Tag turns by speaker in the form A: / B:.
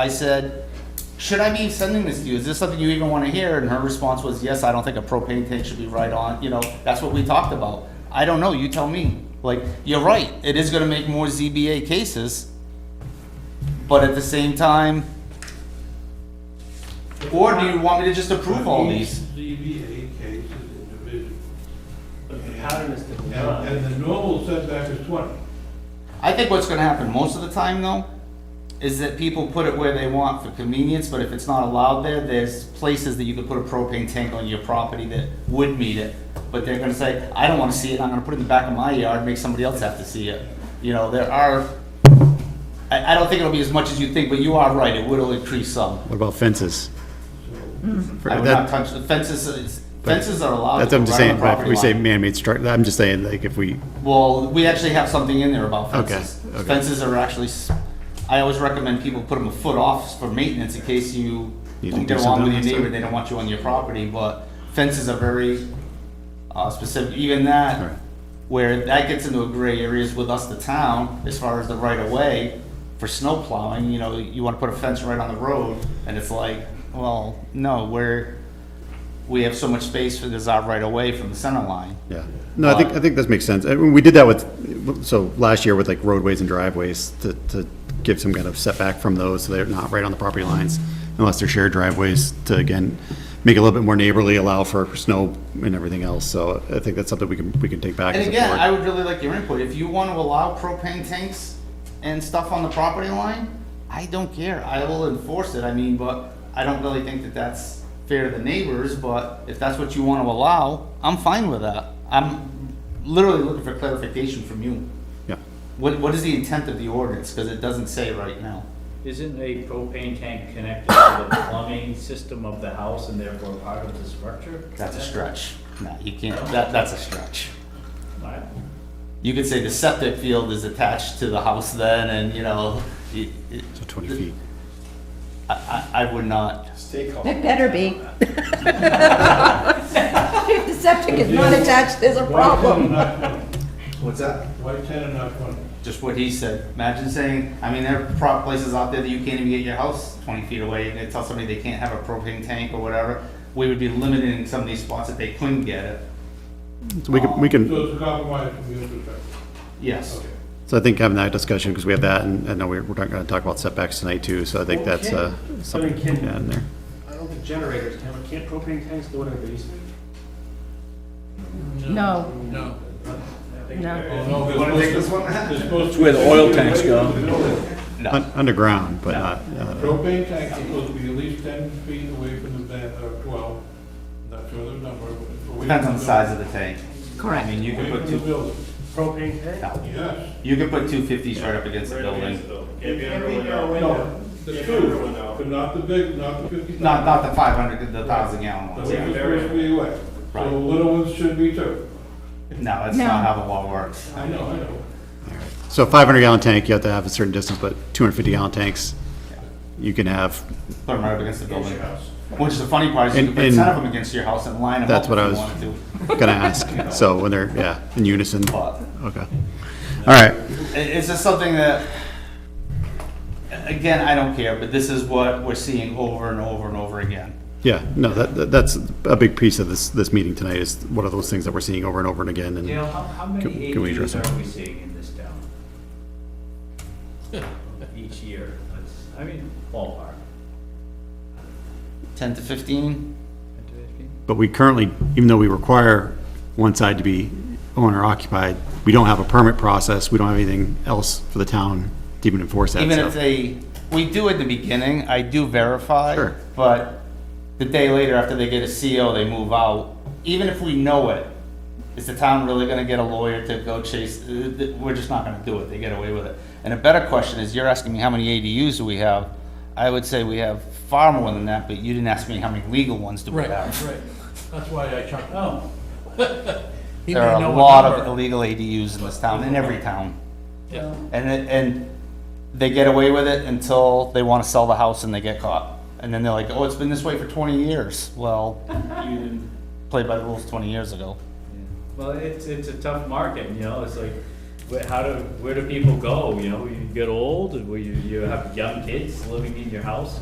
A: I said, should I be sending this to you? Is this something you even want to hear? And her response was, yes, I don't think a propane tank should be right on, you know, that's what we talked about. I don't know, you tell me. Like, you're right, it is gonna make more ZBA cases, but at the same time, or do you want me to just approve all these?
B: Each ZBA case is individual.
C: But the pattern is to
B: And,
C: not.
B: and the normal setback is twenty.
A: I think what's gonna happen most of the time though, is that people put it where they want for convenience, but if it's not allowed there, there's places that you could put a propane tank on your property that would meet it. But they're gonna say, I don't wanna see it, I'm gonna put it in the back of my yard, make somebody else have to see it. You know, there are, I, I don't think it'll be as much as you think, but you are right, it will increase some.
D: What about fences? For-
A: I would not
D: that-
A: touch, the fences, is- fences are allowed.
D: That's what I'm just
A: right on
D: saying,
A: the
D: right, if we say
A: property line.
D: man-made structure, I'm just saying, like, if we,
A: Well, we actually have something in there about
D: Okay,
A: fences.
D: okay.
A: Fences are actually, s- I always recommend people put them a foot off for maintenance in case you
D: Need to
A: don't
D: do
A: get along with your
D: something else,
A: neighbor,
D: or-
A: they don't want you on your property, but fences are very uh, specific, even that,
D: Right.
A: where that gets into a gray areas with us, the town, as far as the right of way for snow plowing, you know, you wanna put a fence right on the road, and it's like, well, no, we're, we have so much space for this our right of way from the center line.
D: yeah. No, I think, I think this makes sense. I mean, we did that with, so last year with like roadways and driveways to, to give some kind of setback from those, so they're not right on the property lines, unless they're shared driveways to, again, make it a little bit more neighborly, allow for snow and everything else, so I think that's something we can, we can take back as
A: And
D: a
A: again, I
D: board.
A: would really like your input. If you want to allow propane tanks and stuff on the property line, I don't care. I will enforce it. I mean, but I don't really think that that's fair to the neighbors, but if that's what you want to allow, I'm fine with that. I'm literally looking for clarification from you.
D: Yeah,
A: What, what is the intent of the ordinance? Because it doesn't say right now.
C: Isn't a propane tank connected to the plumbing system of the house and therefore part of the structure?
A: That's a stretch. No, you can't, that, that's a stretch.
C: Right.
A: You could say the septic field is attached to the house then and, you know, it, it,
D: so 20 feet.
A: I, I, I would not.
E: It better be. If the septic is not attached, there's a
B: Why ten and
E: problem.
B: not twenty?
A: What's that?
B: Why ten and not twenty?
A: Just what he said. Imagine saying, I mean, there are prop places out there that you can't even get your house twenty feet away, and they tell somebody they can't have a propane tank or whatever. We would be limited in some of these spots that they couldn't get it.
D: So we can, we can.
B: So it's a compromise from your perspective.
A: Yes.
B: Okay.
D: So I think having that discussion, because we have that, and I know we're, we're not gonna talk about setbacks tonight too, so I think
F: Well,
D: that's, uh,
F: can-
D: something
F: I mean, can-
D: yeah, in there.
F: I don't think generators can, but can't propane tanks go in a basement?
E: No,
B: No.
E: no.
B: Oh, no. Wanna take this one? It's
G: where the oil tanks go.
A: No.
D: Un- Underground, but not, uh,
B: Propane tanks are supposed to be at least ten feet away from the van, or twelve, not sure of the number. but away
A: Depends
B: from
A: on the size of the tank. I
E: Correct.
A: mean, you could
B: Away
A: put
B: from the
A: two,
B: building,
F: Propane tank?
B: yes.
A: you could put two fifties right up against the building.
B: No, the two, but not the big, not the fifty.
A: Not, not the five hundred, the thousand gallon
B: The
A: ones.
B: little
A: yeah.
B: one's supposed to be away, so
A: Right.
B: the little ones should be too.
A: No, that's
E: No.
A: not how the law works.
B: I know, I know.
D: so five hundred gallon tank, you have to have a certain distance, but two hundred fifty gallon tanks, you can have,
A: Put them right up against the building. Which is the funny part, is you
D: And-
A: could put
D: and-
A: ten of them against your house and line them up
D: That's
A: if
D: what I
A: you
D: was-
A: wanted to.
D: gonna ask, so when they're, yeah, in unison, okay.
A: But
D: All right,
A: It- It's just something that, again, I don't care, but this is what we're seeing over and over and over again.
D: yeah, no, that, that- that's a big piece of this, this meeting tonight, is what are those things that we're seeing over and over and again,
C: Dale,
D: and
C: how, how
D: Can-
C: many
D: can we address
C: ADUs
D: that?
C: are we seeing in this town? Each year, that's, I mean, ballpark.
A: 10 to 15?
D: But we currently, even though we require one side to be owner occupied, we don't have a permit process, we don't have anything else for the town to even enforce that
A: Even if
D: stuff.
A: they, we do at the beginning, I do verify,
D: Sure.
A: but the day later after they get a CO, they move out. Even if we know it, is the town really gonna get a lawyer to go chase, uh, th- we're just not gonna do it, they get away with it. And a better question is, you're asking me how many ADUs do we have? I would say we have far more than that, but you didn't ask me how many legal ones do we have.
H: right. That's why I chuckled.
C: Oh,
H: He
A: There
H: may
A: are a
H: know
A: lot of
H: number.
A: illegal ADUs in this town, in every town.
H: Yeah.
A: And, it- and they get away with it until they want to sell the house and they get caught. And then they're like, oh, it's been this way for 20 years. Well, you didn't play by the rules 20 years ago.
C: well, it's, it's a tough market, you know, it's like, where, how do, where do people go, you know, you get old, or you, you have young kids living in your house?